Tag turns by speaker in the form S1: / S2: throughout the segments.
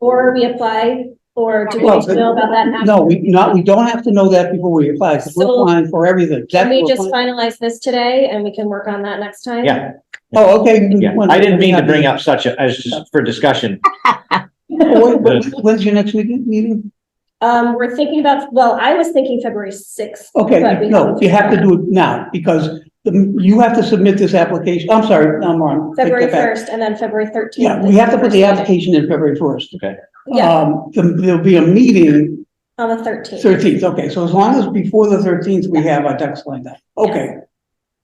S1: Or we apply, or do we
S2: Well,
S1: need to know about that?
S2: No, we, not, we don't have to know that before we apply, because we're
S1: So-
S2: applying for
S1: Can
S2: everything. That's
S1: we
S2: what
S1: just
S2: we're
S1: finalize this today and we can work on that next time?
S3: Yeah,
S2: applying- Oh, okay.
S3: yeah. I didn't mean to bring up such a, as just for discussion.
S2: When- when- When's your next weekend meeting?
S1: Um, we're thinking about, well, I was thinking February sixth. But
S2: Okay,
S1: we
S2: no,
S1: can-
S2: you have to do it now, because the- you have to submit this application, I'm sorry, I'm wrong. Take
S1: February
S2: that back.
S1: first and then February thirteenth.
S2: Yeah, we have to put the application in February first.
S3: Okay.
S1: Yeah.
S2: Um, there- there'll be a meeting
S1: On the thirteenth.
S2: Thirteenth, okay, so as long as before the thirteenth, we have our ducks lined up, okay.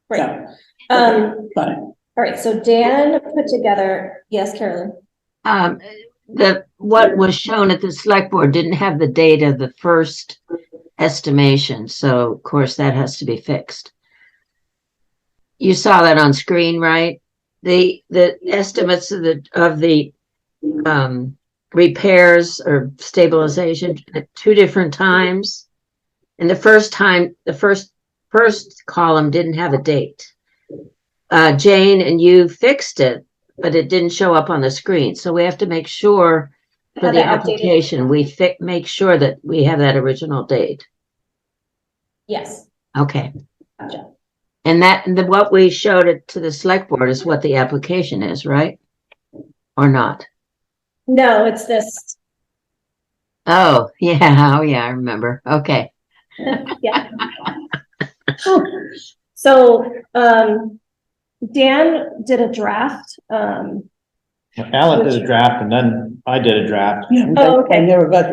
S1: Right.
S2: yeah,
S1: Um,
S2: Got it.
S1: all right, so Dan put together, yes, Carolyn?
S4: Um, the, what was shown at the select board didn't have the date of the first estimation, so of course that has to be fixed. You saw that on screen, right? The, the estimates of the, of the, um, repairs or stabilization at two different times. And the first time, the first, first column didn't have a date. Uh, Jane and you fixed it, but it didn't show up on the screen, so we have to make sure for
S1: Have
S4: the
S1: that updated.
S4: application, we fi- make sure that we have that original date.
S1: Yes,
S4: Okay.
S1: Gotcha.
S4: And that, and the, what we showed it to the select board is what the application is, right? Or not?
S1: no, it's this,
S4: Oh, yeah, oh, yeah, I remember. Okay.
S1: yeah. So, um, Dan did a draft, um,
S3: Alan did a draft and then I did a draft.
S2: Yeah, I-
S1: Oh, okay.
S2: I never got,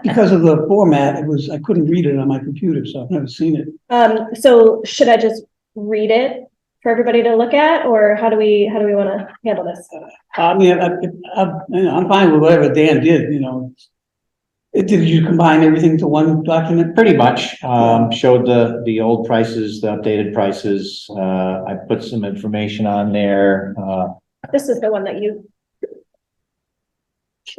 S2: because of the format, it was, I couldn't read it on my computer, so I've never seen it.
S1: um, so should I just read it for everybody to look at, or how do we, how do we want to handle this?
S2: I mean, I, I, I'm, you know, I'm fine with whatever Dan did, you know. It, did you combine everything to one document?
S3: Pretty much, um, showed the, the old prices, the updated prices. Uh, I put some information on there. Uh,
S1: This is the one that you,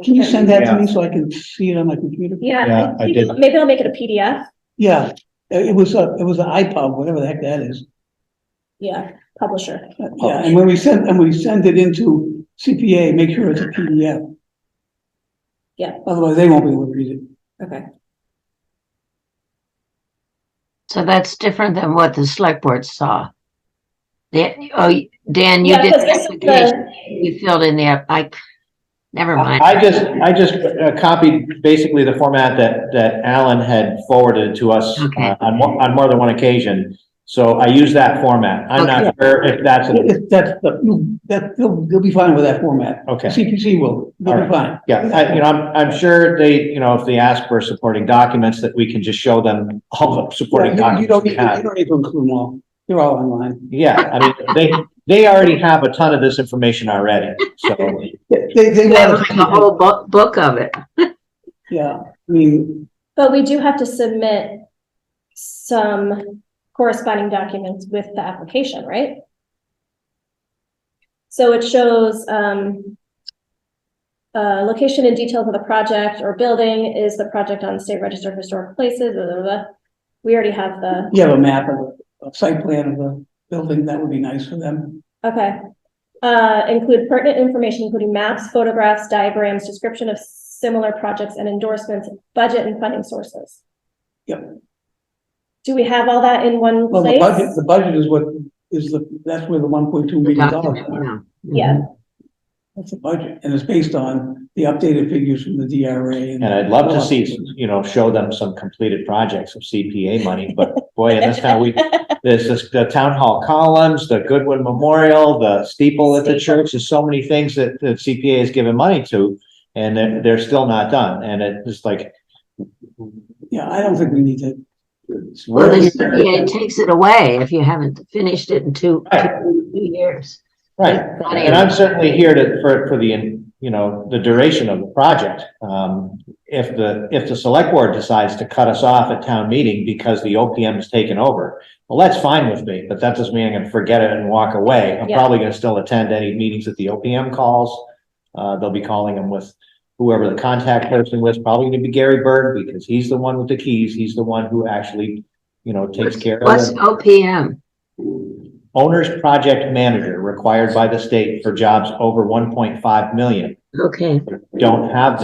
S2: Can you send that to me so I can see it on my computer?
S1: yeah,
S3: Yeah,
S1: I
S3: I
S1: think-
S3: did.
S1: maybe I'll make it a PDF,
S2: Yeah, Uh, it it was a, it was an iPod, whatever the heck that is.
S1: yeah, publisher.
S2: Yeah, and when we send, and we send it into CPA, make sure it's a PDF.
S1: Yeah.
S2: Otherwise, they won't be able to read it.
S1: Okay.
S4: So that's different than what the select board saw. Yeah, oh, Dan, you
S1: Yeah,
S4: did
S1: 'cause
S4: the
S1: this is
S4: application.
S1: the-
S4: You filled in the, app- I, never mind.
S3: I just, I just uh, copied basically the format that, that Alan had forwarded to us uh,
S4: Okay.
S3: on, mo- on more than one occasion. So I use that format. I'm not sure if that's, a-
S2: If That's, the- you- that, they'll, they'll be fine with that format.
S3: okay.
S2: CPC will, they'll be fine.
S3: Yeah, I, you know, I'm, I'm sure they, you know, if they ask for supporting documents, that we can just show them all the supporting
S2: Yeah, You you don't need,
S3: documents we
S2: to- you
S3: have.
S2: don't need to include them all. They're all online.
S3: Yeah, I mean, they, they already have a ton of this information already, so.
S2: They- They, they.
S4: You have
S2: want
S4: like a
S2: to-
S4: whole book, book of it.
S2: Yeah, I mean,
S1: But we do have to submit some corresponding documents with the application, right? So it shows, um, uh, location and details of the project or building, is the project on state register of historic places, blah, blah, blah. We already have the,
S2: you have a map of, the- a site plan of the building, that would be nice for them.
S1: okay. Uh, include pertinent information, including maps, photographs, diagrams, description of similar projects and endorsements, budget and funding sources.
S2: Yep.
S1: Do we have all that in one
S2: Well,
S1: place?
S2: the budget, the budget is what, is the, that's where the one point two million dollars.
S4: document, yeah.
S1: Yeah.
S2: That's a budget, and it's based on the updated figures from the DRA.
S3: And I'd love to see, you know, show them some completed projects of CPA money, but boy, in this town, we, there's this, the town hall columns, the Goodwin Memorial, the steeple at the church, there's so many things that, that CPA has given money to, and they're, they're still not done, and it just like.
S2: Yeah, I don't think we need to.
S4: Well, the CPA takes it away if you haven't finished it in two, two years.
S3: Right, and I'm certainly here to, for, for the, you know, the duration of the project. Um, if the, if the select board decides to cut us off at town meeting because the OPM has taken over, well, that's fine with me, but that doesn't mean I'm gonna forget it and walk away. I'm
S1: Yeah.
S3: probably gonna still attend any meetings that the OPM calls. Uh, they'll be calling them with whoever the contact person was, probably gonna be Gary Bird, because he's the one with the keys. He's the one who actually, you know, takes care of
S4: What's
S3: it.
S4: OPM?
S3: Owner's project manager required by the state for jobs over one point five million.
S4: Okay.
S3: don't have